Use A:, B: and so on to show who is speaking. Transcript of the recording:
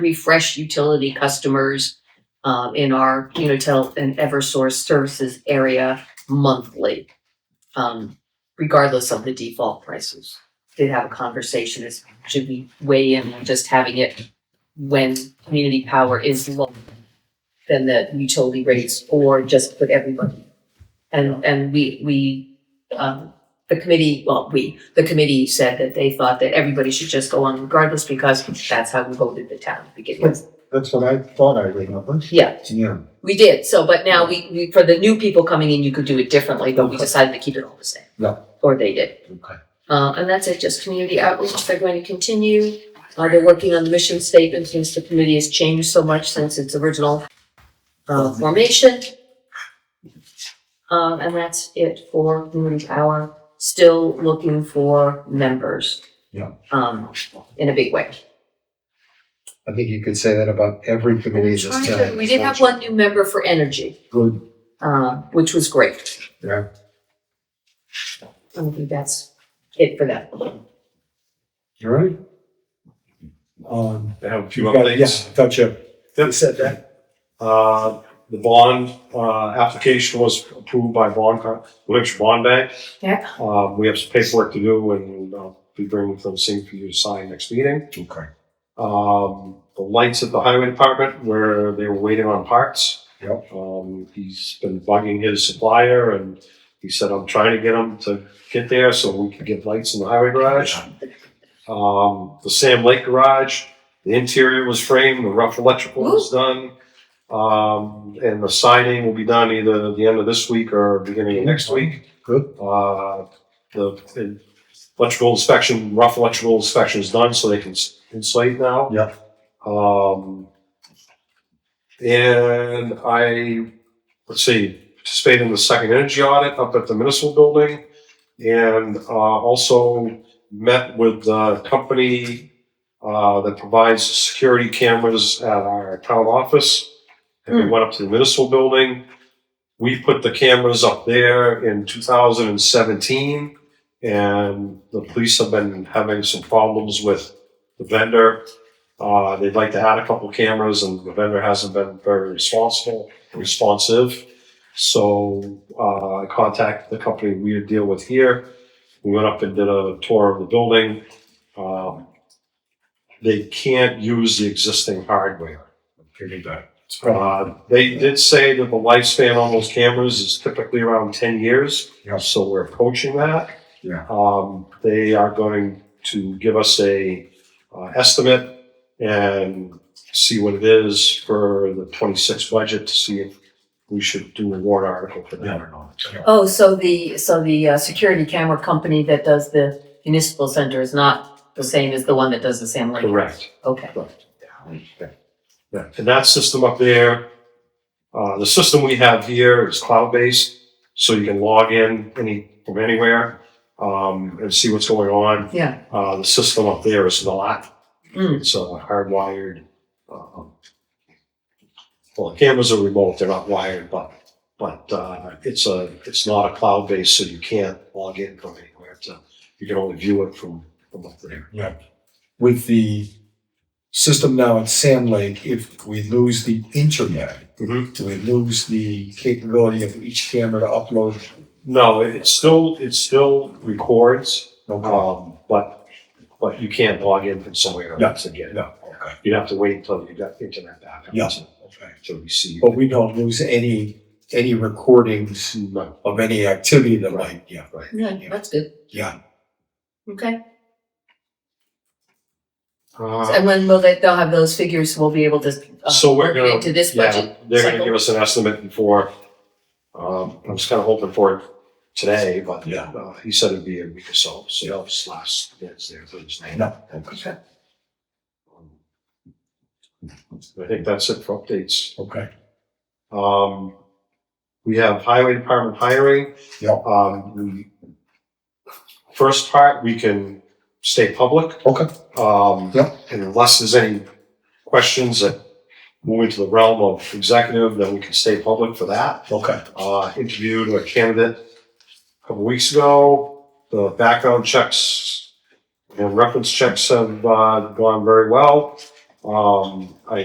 A: refresh utility customers um, in our Unitel and Eversource services area monthly, um, regardless of the default prices. Did have a conversation, is, should we weigh in on just having it when community power is low than the utility rates, or just put everybody? And, and we, we, um, the committee, well, we, the committee said that they thought that everybody should just go on regardless because that's how we voted the town to begin with.
B: That's what I thought I remembered.
A: Yeah,
B: Yeah.
A: we did, so, but now we, we, for the new people coming in, you could do it differently, but we decided to keep it all the same.
B: Yeah.
A: Or they did.
B: Okay.
A: Uh, and that's it, just community outreach, they're going to continue. Uh, they're working on the mission statement since the committee has changed so much since its original uh, formation. Um, and that's it for community power, still looking for members.
B: Yeah.
A: Um, in a big way.
B: I think you could say that about every committee this
A: Trying to-
B: time.
A: We did have one new member for energy,
B: Good,
A: uh, which was great.
B: yeah.
A: I think that's it for that.
B: You all right? Um,
C: I have a few
B: yeah,
C: other
B: yeah, I
C: things.
B: thought you
C: Yep.
B: said that.
C: Uh, the bond, uh, application was approved by Bond, Co- Lynch Bond Bank.
A: Yeah.
C: Uh, we have some paperwork to do and I'll be bringing them same for you to sign next meeting.
B: Okay.
C: Um, the lights at the highway department where they were waiting on parts.
B: Yep.
C: Um, he's been bugging his supplier and he said, I'm trying to get him to get there so we can get lights in the highway garage. Um, the Sam Lake garage, the interior was framed, the rough electrical was done. Um, and the siding will be done either the end of this week or beginning of next week.
B: Good.
C: Uh, the the electrical inspection, rough electrical inspection is done, so they can s- insulate now.
B: Yeah.
C: Um, and I, let's see, participated in the second energy audit up at the municipal building and uh, also met with the company uh, that provides security cameras at our town office. And we went up to the municipal building. We put the cameras up there in 2017, and the police have been having some problems with the vendor. Uh, they'd like to add a couple cameras, and the vendor hasn't been very responsible, responsive. So uh, I contacted the company we deal with here. We went up and did a tour of the building. Um, they can't use the existing hardware.
B: Figured that.
C: Uh, they did say that the lifespan on those cameras is typically around ten years.
B: Yeah.
C: So we're approaching that.
B: Yeah.
C: Um, they are going to give us a uh, estimate and see what it is for the twenty-six budget to see if we should do a warrant article for that or not.
B: Uh,
A: Oh, so the, so the uh, security camera company that does the municipal center is not the same as the one that does the Sam Lake?
C: Correct.
A: Okay.
C: Yeah, and that system up there, uh, the system we have here is cloud-based, so you can log in any, from anywhere, um, and see what's going on.
A: Yeah.
C: Uh, the system up there is not,
A: Mm.
C: it's uh, hardwired, um, well, the cameras are remote, they're not wired, but, but, uh, it's a, it's not a cloud-based, so you can't log in from anywhere to, you can only view it from, from up there.
B: With the system now at Sand Lake, if we lose the internet,
C: Mhm.
B: do we lose the capability of each camera to upload?
C: No, it still, it still records,
B: No problem.
C: Um, but, but you can't log in from somewhere
B: No,
C: else again.
B: No, okay,
C: You'd have to wait until you got internet back.
B: Yeah.
C: To
B: okay.
C: to receive.
B: But we don't lose any, any recordings
C: No.
B: of any activity that might, yeah, right,
A: Yeah, that's good.
B: yeah.
A: Okay.
C: Uh,
A: And when will they, they'll have those figures, we'll be able to uh,
C: So we're
A: work it
C: gonna-
A: into this
C: yeah,
A: budget
C: they're gonna
A: cycle.
C: give us an estimate before, um, I'm just kinda hoping for it today, but,
B: Yeah.
C: uh, he said it'd be a week or so, so you'll have his last, that's there, Thursday.
B: No.
C: Okay. I think that's it for updates.
B: Okay.
C: Um, we have highway department hiring.
B: Yep.
C: Um, the first part, we can stay public.
B: Okay.
C: Um,
B: Yep.
C: and unless there's any questions that move into the realm of executive, then we can stay public for that.
B: Okay.
C: Uh, interviewed a candidate a couple weeks ago. The background checks and reference checks have, uh, gone very well. Um, I